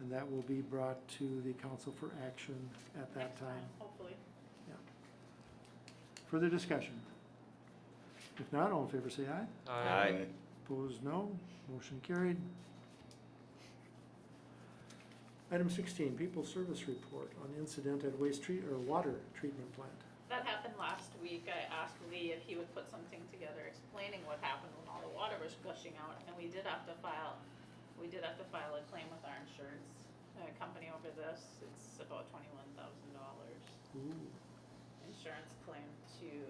And that will be brought to the council for action at that next time. Hopefully. Further discussion? If not, all in favor say aye. Aye. Opposed, no. Motion carried. Item sixteen, people service report on incident at waste treat, or water treatment plant. That happened last week. I asked Lee if he would put something together explaining what happened when all the water was gushing out, and we did have to file, we did have to file a claim with our insurance uh, company over this. It's about twenty-one thousand dollars Ooh. insurance claim to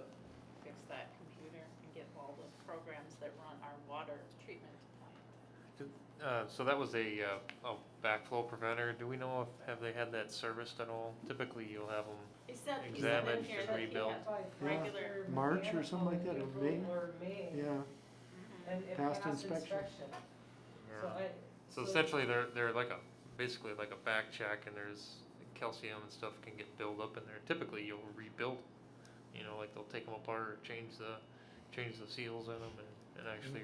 fix that computer and get all the programs that run our water treatment plant. Uh, so that was a, uh, a backflow preventer. Do we know if, have they had that serviced at all? Typically, you'll have them, He said, he said in Examined here and that he rebuilt. had Yeah. regular, March or something like that, or May? Or May. Yeah, And it Past passed inspection. inspection. So I. so essentially they're, they're like a, basically like a back check and there's calcium and stuff can get built up in there. Typically, you'll rebuild, you know, like they'll take them apart or change the, change the seals in them and, and actually,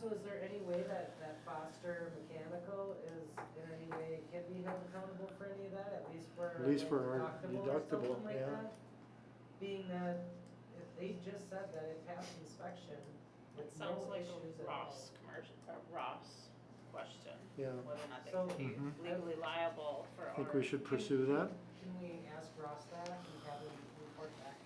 So is there any way that, that Foster Mechanical is, in any way, can be held accountable for any of that, at least for. At least for like our or deductible, something like yeah. that? Being that, if they just said that it passed inspection, it with no sounds like issues a at all. Ross commercial, a Ross question, yeah. whether or not they So- could be Mhm. legally liable I for our. think we should pursue that. Can we ask Ross that and have him report back Mm-hmm.